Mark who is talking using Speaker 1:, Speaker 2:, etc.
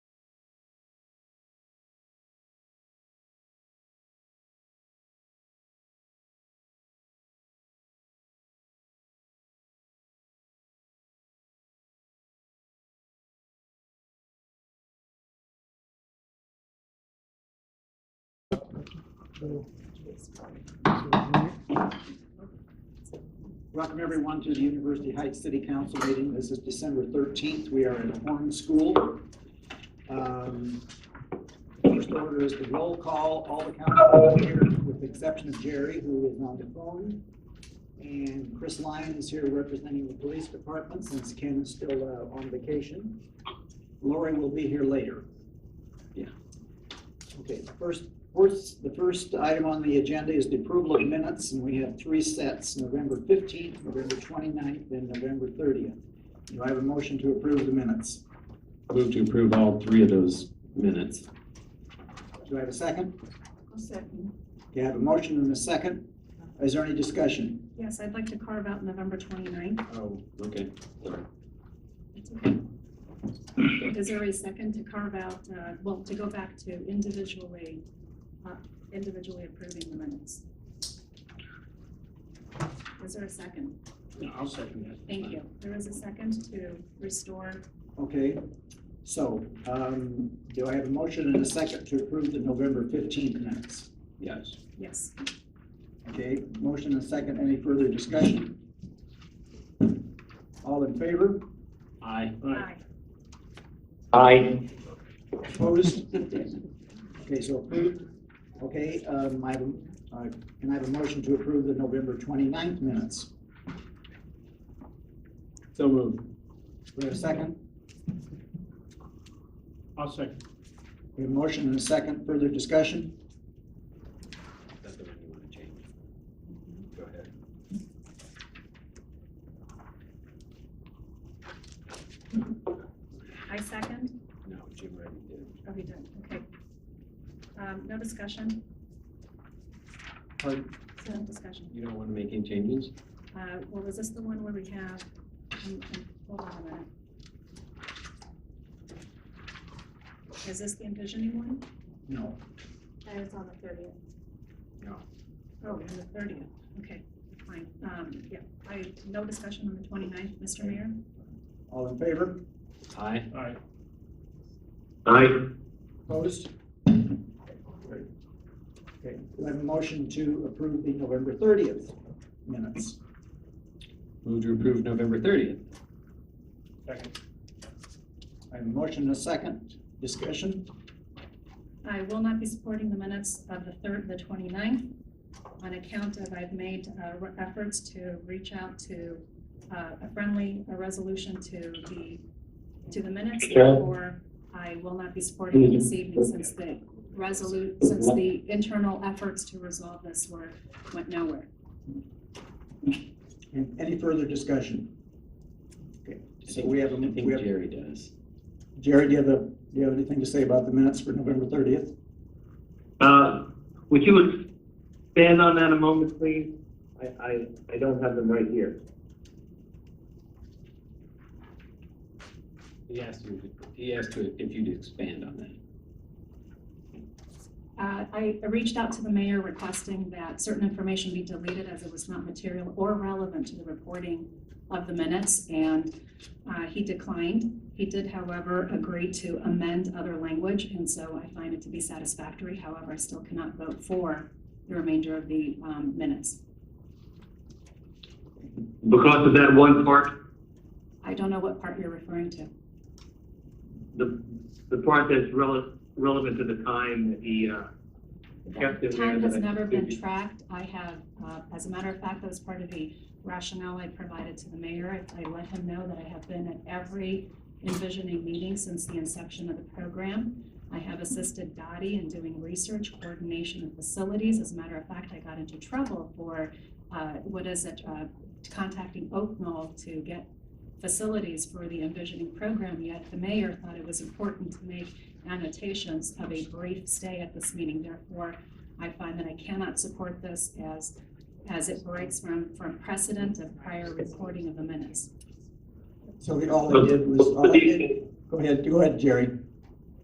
Speaker 1: Welcome everyone to the University Heights City Council meeting. This is December 13th. We are in Horn School. Um, First order is the roll call. All the council is here with the exception of Jerry, who is on the phone. And Chris Lyon is here representing the police department since Ken is still uh, on vacation. Lori will be here later. Yeah. Okay, the first, first, the first item on the agenda is the approval of minutes, and we have three sets, November fifteenth, November 29th, and November thirtieth. Do I have a motion to approve the minutes?
Speaker 2: Move to approve all three of those minutes.
Speaker 1: Do I have a second?
Speaker 3: I'll second.
Speaker 1: Okay, I have a motion and a second. Is there any discussion?
Speaker 3: Yes, I'd like to carve out November 29th.
Speaker 1: Oh.
Speaker 2: Okay.
Speaker 3: That's okay. Is there a second to carve out, uh, well, to go back to individually, uh, individually approving the minutes? Is there a second?
Speaker 2: I'll second that.
Speaker 3: Thank you. There is a second to restore.
Speaker 1: Okay, so, um, do I have a motion and a second to approve the November fifteenth minutes?
Speaker 2: Yes.
Speaker 3: Yes,
Speaker 1: Okay, motion and second. Any further discussion? All in favor?
Speaker 2: Aye.
Speaker 3: aye.
Speaker 2: Aye.
Speaker 1: Opposed? Okay, so approved. Okay, um, I have, a- I- can I have a motion to approve the November 29th minutes?
Speaker 2: So move.
Speaker 1: We have a second?
Speaker 2: I'll second.
Speaker 1: We have a motion and a second. Further discussion?
Speaker 2: That's the one you want to change. Go ahead.
Speaker 3: I second.
Speaker 2: No, Jim already did.
Speaker 3: Oh, he did, okay. Um, No discussion?
Speaker 1: Pardon?
Speaker 3: No discussion.
Speaker 2: You don't want to make any changes?
Speaker 3: Uh, Well, is this the one where we have, um, um, hold on a minute. Is this the envisioning one?
Speaker 1: No.
Speaker 3: That is on the thirtieth.
Speaker 2: No.
Speaker 3: Oh, on the thirtieth, okay, fine. Um, Yeah, I, no discussion on the 29th, Mr. Mayor?
Speaker 1: All in favor?
Speaker 2: Aye. Aye.
Speaker 1: Opposed? Great. Okay, do I have a motion to approve the November 30th minutes?
Speaker 2: Move to approve November thirtieth.
Speaker 1: I have a motion and a second. Discussion?
Speaker 3: I will not be supporting the minutes of the third, the 29th, on account of I've made uh, re- efforts to reach out to uh, a friendly a resolution to the, to the minutes. Therefore, I will not be supporting it this evening since the resolute, since the internal efforts to resolve this were, went nowhere.
Speaker 1: And any further discussion? Okay, so we have, a
Speaker 2: I think
Speaker 1: we have
Speaker 2: Jerry does.
Speaker 1: Jerry, do you have a, do you have anything to say about the minutes for November thirtieth?
Speaker 4: Uh, Would you expand on that a moment, please? I, I, I don't have them right here.
Speaker 2: He asked you, he asked you if you'd expand on that.
Speaker 3: Uh, I I reached out to the mayor requesting that certain information be deleted as it was not material or relevant to the reporting of the minutes, and uh, he declined. He did, however, agree to amend other language, and so I find it to be satisfactory. However, I still cannot vote for the remainder of the um, minutes.
Speaker 4: Because of that one part,
Speaker 3: I don't know what part you're referring to.
Speaker 4: the, the part that's rele- relevant to the time that he, uh, kept it there.
Speaker 3: Time has
Speaker 4: that I-
Speaker 3: never been tracked. I have, uh, as a matter of fact, that was part of the rationale I provided to the mayor. I I let him know that I have been at every envisioning meeting since the inception of the program. I have assisted Dottie in doing research, coordination, and facilities. As a matter of fact, I got into trouble for, uh, what is it, uh, contacting Oak Knoll to get facilities for the envisioning program, yet the mayor thought it was important to make annotations of a brief stay at this meeting. Therefore, I find that I cannot support this as, as it breaks from, from precedent of prior reporting of the minutes.
Speaker 1: So the, all I did was, all I did, go ahead, go ahead, Jerry.